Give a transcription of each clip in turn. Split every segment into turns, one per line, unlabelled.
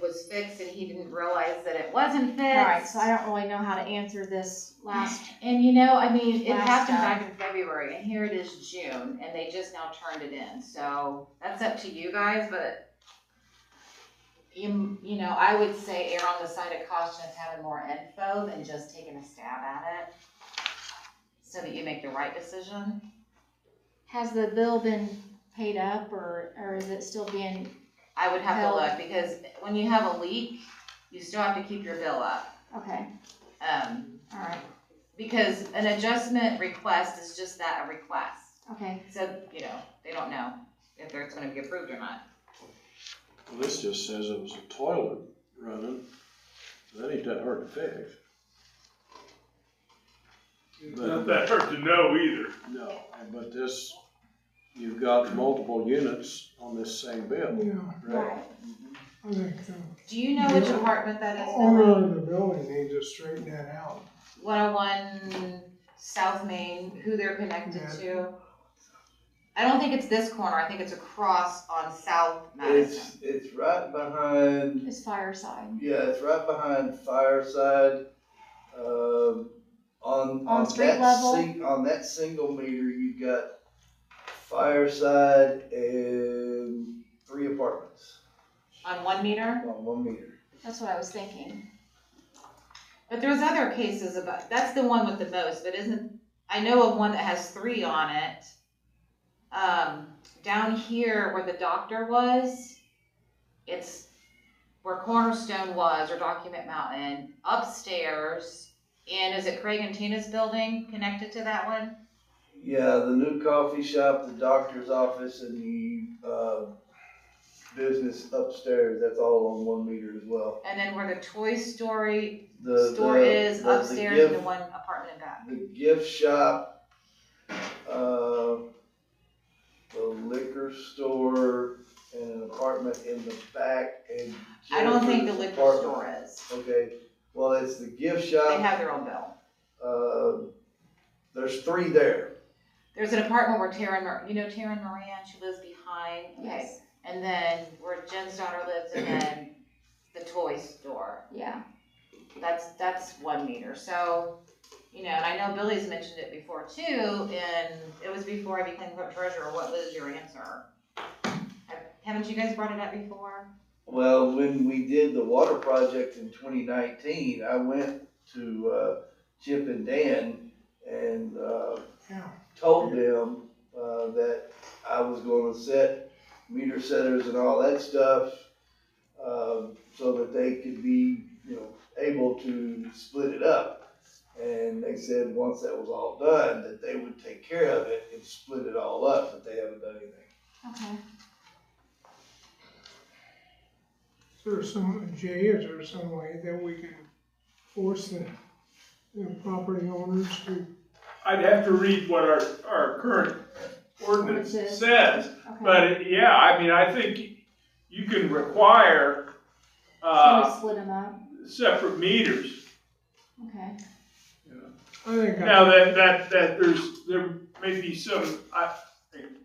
was fixed and he didn't realize that it wasn't fixed.
Right, so I don't really know how to answer this last,
And you know, I mean, it
Last
happened
time.
back in February, and here it is June, and they just now turned it in. So that's up to you guys, but you, you know, I would say err on the side of caution of having more info than just taking a stab at it, so that you make the right decision.
has the bill been paid up or, or is it still being,
I would have to
Held.
look because when you have a leak, you still have to keep your bill up.
okay,
Um,
all right,
because an adjustment request is just that, a request.
okay.
So, you know, they don't know if they're- it's gonna be approved or not.
Well, This just says it was a toilet running, that ain't that hard to fix.
It's Not that hard to know either.
No, but this, you've got multiple units on this same bill,
Yeah,
right?
I think so.
Do you know which apartment that is?
Owner of the building needs to straighten that out.
One oh one South Main, who they're connected
Yeah.
to? I don't think it's this corner, I think it's across on South
It's
Madison.
it's right behind
It's fireside,
yeah, it's right behind Fireside. Um,
On
on on
street
that
level?
sing- on that single meter, you've got Fireside and three apartments
On one meter?
on one meter.
that's what I was thinking.
But there's other cases about, that's the one with the most, but isn't, I know of one that has three on it. Um, down here where the doctor was, it's where Cornerstone was or Document Mountain, upstairs. And is it Craig and Tina's building connected to that one?
Yeah, the new coffee shop, the doctor's office, and the uh, business upstairs. That's all on one meter as well.
And then where the Toy Story
The
store
the,
is
the- the
upstairs
gift-
and the one apartment in back.
the gift shop, uh, the liquor store, and an apartment in the back. And
I don't think the liquor
Jennifer's apartment.
store is.
Okay, well, it's the gift
They
shop.
have their own bill.
Uh, there's three there.
There's an apartment where Taryn, Mor- you know Taryn Moran, she lives behind. Okay.
Yes,
And then where Jen's daughter lives and then the toy store.
yeah,
That's, that's one meter. So, you know, and I know Billy's mentioned it before too, and it was before I became clerk treasurer. What was your answer? Haven't you guys brought it up before?
Well, when we did the water project in 2019, I went to uh, Chip and Dan and uh,
Yeah,
told them uh, that I was going to set meter setters and all that stuff um, so that they could be, you know, able to split it up. And they said once that was all done, that they would take care of it and split it all up, but they haven't done anything.
okay.
is there some, Jay, is there some way that we can force the, the property owners to?
I'd have to read what our, our current ordinance
Which is-
says,
okay.
but yeah, I mean, I think you can require,
Can we
uh,
split them up?
separate meters.
Okay,
I think, I-
Now, that, that, that there's, there may be some, I,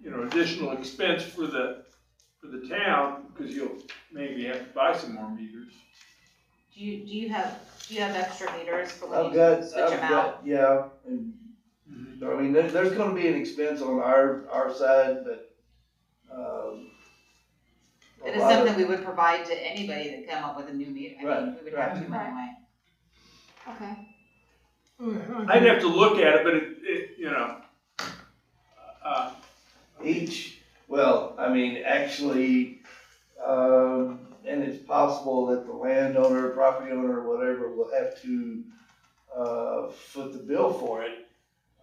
you know, additional expense for the, for the town, because you'll maybe have to buy some more meters.
Do you, do you have, do you have extra meters for when
I've
you
got,
switch
I've
them out?
got, yeah, and I mean, there, there's gonna be an expense on our, our side, but, um. a
It is
lot of-
something we would provide to anybody that come up with a new meter. I mean,
Right,
we would have
right.
to anyway.
okay.
I
I'd
think,
have to look at it, but it, it, you know, uh,
Each, well, I mean, actually, um, and it's possible that the landowner, property owner, whatever, will have to, uh, foot the bill for it.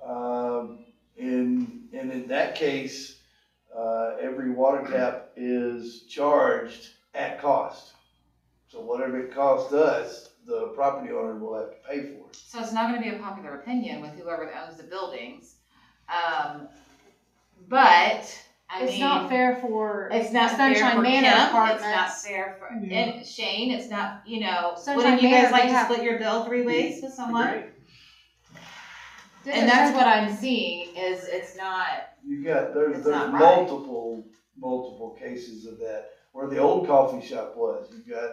Um, and, and in that case, uh, every water tap is charged at cost. So whatever it costs us, the property owner will have to pay for it.
So it's not gonna be a popular opinion with whoever owns the buildings. Um, but, I mean.
It's not fair for
It's not fair
Sunshine
for Kim,
Manor
it's not
apartments.
fair for,
Yeah.
and Shane, it's not, you know,
Sunshine
wouldn't you guys
Manor,
like
they
to
have-
split your bill three ways with someone?
This
And
is-
that's what I'm seeing, is it's not,
You got, there's,
It's
there's
not right.
multiple, multiple cases of that, where the old coffee shop was, you got